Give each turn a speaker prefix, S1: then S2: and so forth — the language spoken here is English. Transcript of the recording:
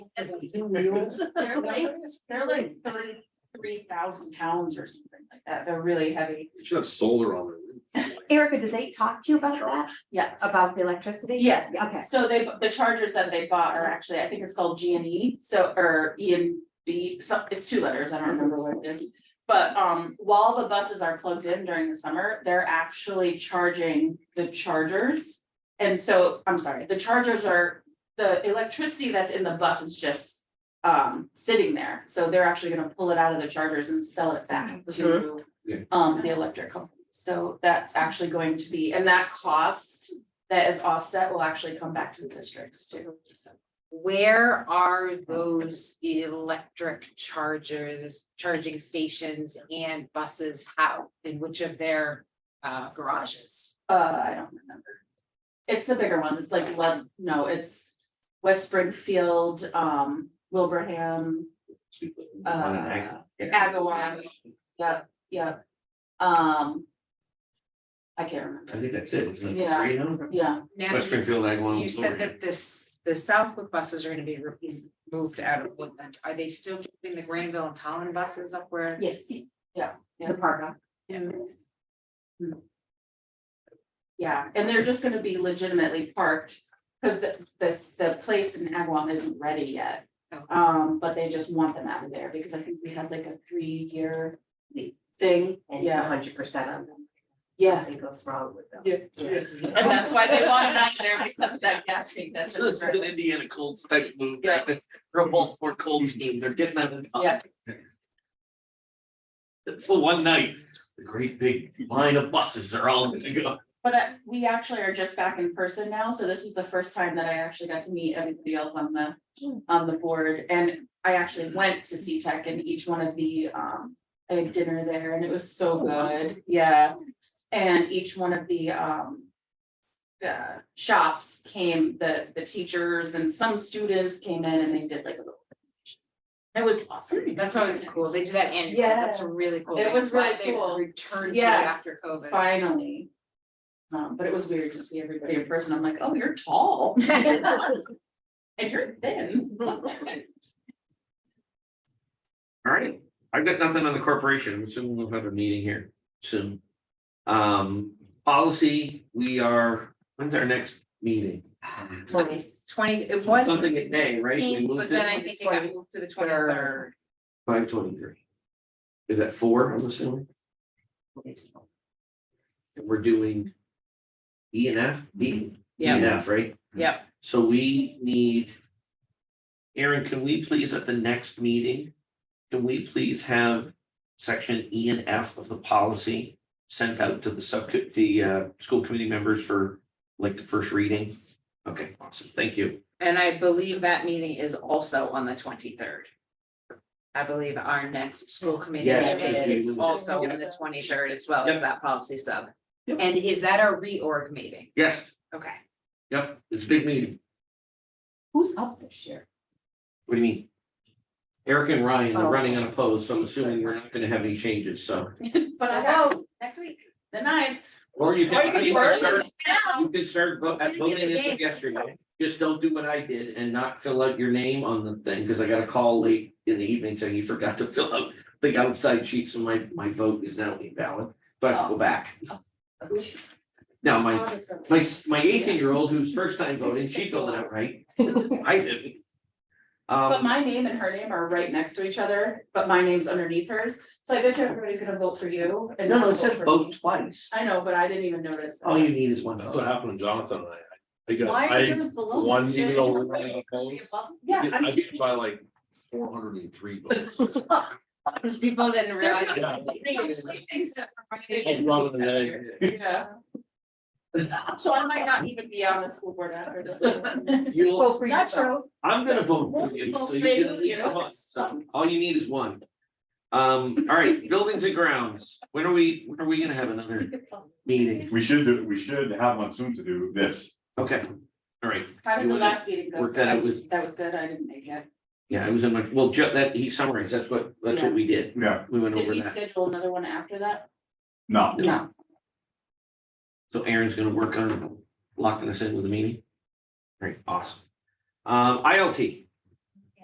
S1: as mules. They're like, they're like thirty-three thousand pounds or something like that. They're really heavy.
S2: You should have solar on their roof.
S3: Erica, does they talk to you about that,
S1: Yeah.
S3: about the electricity?
S1: Yeah.
S3: Okay,
S1: So they, the chargers that they bought are actually, I think it's called G and E, so, or E and B, so, it's two letters, I don't remember what it is. But, um, while the buses are plugged in during the summer, they're actually charging the chargers. And so, I'm sorry, the chargers are, the electricity that's in the bus is just, um, sitting there. So they're actually gonna pull it out of the chargers and sell it back to,
S2: Yeah.
S1: um, the electric company. So that's actually going to be, and that cost that is offset will actually come back to the districts too, so.
S4: Where are those electric chargers, charging stations and buses housed? In which of their uh garages?
S1: Uh, I don't remember. It's the bigger ones, it's like, Lev- no, it's West Springfield, um, Wilbraham, uh,
S4: Um,
S1: Agawam, yep, yep. Um. I can't
S5: I
S1: remember,
S5: think that's it, it's like
S1: Yeah.
S5: three now,
S1: yeah,
S4: Now,
S5: West Springfield, Ag one.
S4: you said that this, the Southwick buses are gonna be re- is moved out of Woodland. Are they still keeping the Granville and Collin buses up where?
S1: yes,
S3: the parka.
S1: Mm. yeah, and they're just gonna be legitimately parked. Cause the, this, the place in Agawam isn't ready yet.
S4: Okay.
S1: Um, but they just want them out of there because I think we had like a three-year thing,
S3: And it's a
S1: yeah,
S3: hundred percent on them.
S1: yeah.
S3: Something goes wrong with them.
S1: Yeah. And that's why they want them out of there because of that gas tank that's.
S5: So this is an Indiana Colts type move,
S1: Yeah.
S5: or Baltimore Colts game, they're getting out of the. top.
S1: Yeah.
S5: It's the one night, the great big line of buses are all gonna go.
S1: But uh, we actually are just back in person now, so this is the first time that I actually got to meet everybody else on the, on the board. And I actually went to C Tech and each one of the, um, I had dinner there and it was so good, yeah. And each one of the, um, uh, shops came, the, the teachers and some students came in and they did like a little. It was awesome.
S4: That's always cool. They do that annually. That's a really cool.
S1: It
S4: thing.
S1: was
S4: Glad
S1: really cool.
S4: They returned to it
S1: Yeah.
S4: after COVID.
S1: Finally. Um, but it was weird to see everybody in person. I'm like, oh, you're tall. And you're thin.
S5: All right, I've got nothing on the corporation, so we'll have a meeting here soon. Um, policy, we are, when's our next meeting?
S4: Twenty, twenty, it was.
S5: Something in May, right? We
S4: 16,
S5: moved
S4: But then
S5: it.
S4: I think it got moved to the twenty third.
S5: Five twenty-three. Is that four, I'm assuming? And We're doing E and F, B, E and F, right?
S4: Yep.
S5: So we need. Aaron, can we please at the next meeting, can we please have section E and F of the policy? Sent out to the sub, the uh, school committee members for like the first reading? Okay, awesome, thank you.
S4: And I believe that meeting is also on the twenty third. I believe our next school committee
S5: Yes,
S4: meeting
S5: thank
S4: is
S5: you.
S4: also on the twenty third as well as
S5: Yep.
S4: that policy sub.
S5: Yep.
S4: And is that our reorg meeting?
S5: Yes,
S4: Okay.
S5: yep, it's a big meeting,
S3: Who's up this year?
S5: what do you mean? Eric and Ryan
S3: Oh.
S5: are running unopposed, so I'm assuming we're not gonna have any changes, so.
S1: But I know, next week, the ninth.
S5: Or
S1: Or
S5: you
S1: you
S5: can,
S1: could
S5: you
S1: do
S5: can
S1: early.
S5: start, you can start vo- at
S1: Send it to
S5: voting as
S1: James.
S5: of yesterday. Just don't do what I did and not fill out your name on the thing, because I got a call late in the evening saying you forgot to fill out the outside sheet, so my, my vote is now invalid. So I have to go back. Now, my, my, my eighteen-year-old who's first time voting, she filled it out right. I didn't.
S1: But
S5: Um,
S1: my name and her name are right next to each other, but my name's underneath hers, so I bet you everybody's gonna vote for you and
S5: no, no,
S1: not
S5: it says
S1: vote for me.
S5: vote twice.
S1: I know, but I didn't even notice. that.
S5: All you need is one
S6: That's what
S5: vote.
S6: happened to Jonathan and I. I
S1: Why
S6: Oh, got,
S1: are
S6: I,
S1: yours below?
S6: one,
S1: Should
S6: even though
S1: it
S6: we're
S1: be
S6: running opposed.
S1: above? Yeah,
S6: I
S1: I'm.
S6: get by like four hundred and three votes.
S4: Because people didn't realize.
S6: Yeah.
S1: Yeah.
S6: Rather than that,
S1: So I might not even be on the school board after this.
S5: You'll-
S3: Vote for
S1: That's
S3: yourself.
S1: true.
S5: I'm gonna vote for you, so you
S1: Thank
S5: can leave
S1: you.
S5: the bus. So all you need is one. Um, all right, buildings and grounds, when are we, when are we gonna have another meeting?
S7: We should do, we should have one soon to do this.
S5: Okay, all right,
S1: How did
S5: You
S1: the
S5: wanna
S1: last meeting go?
S5: work that out with-
S1: That was good, I didn't make it.
S5: yeah, it was in my, well, Joe, that, he summarized, that's what, that's what we did,
S7: Yeah,
S5: we went
S1: Did
S5: over
S1: we
S5: that.
S1: schedule another one after that?
S7: no,
S1: No.
S5: So Aaron's gonna work on locking us in with a meeting. Great, awesome. Um, ILT,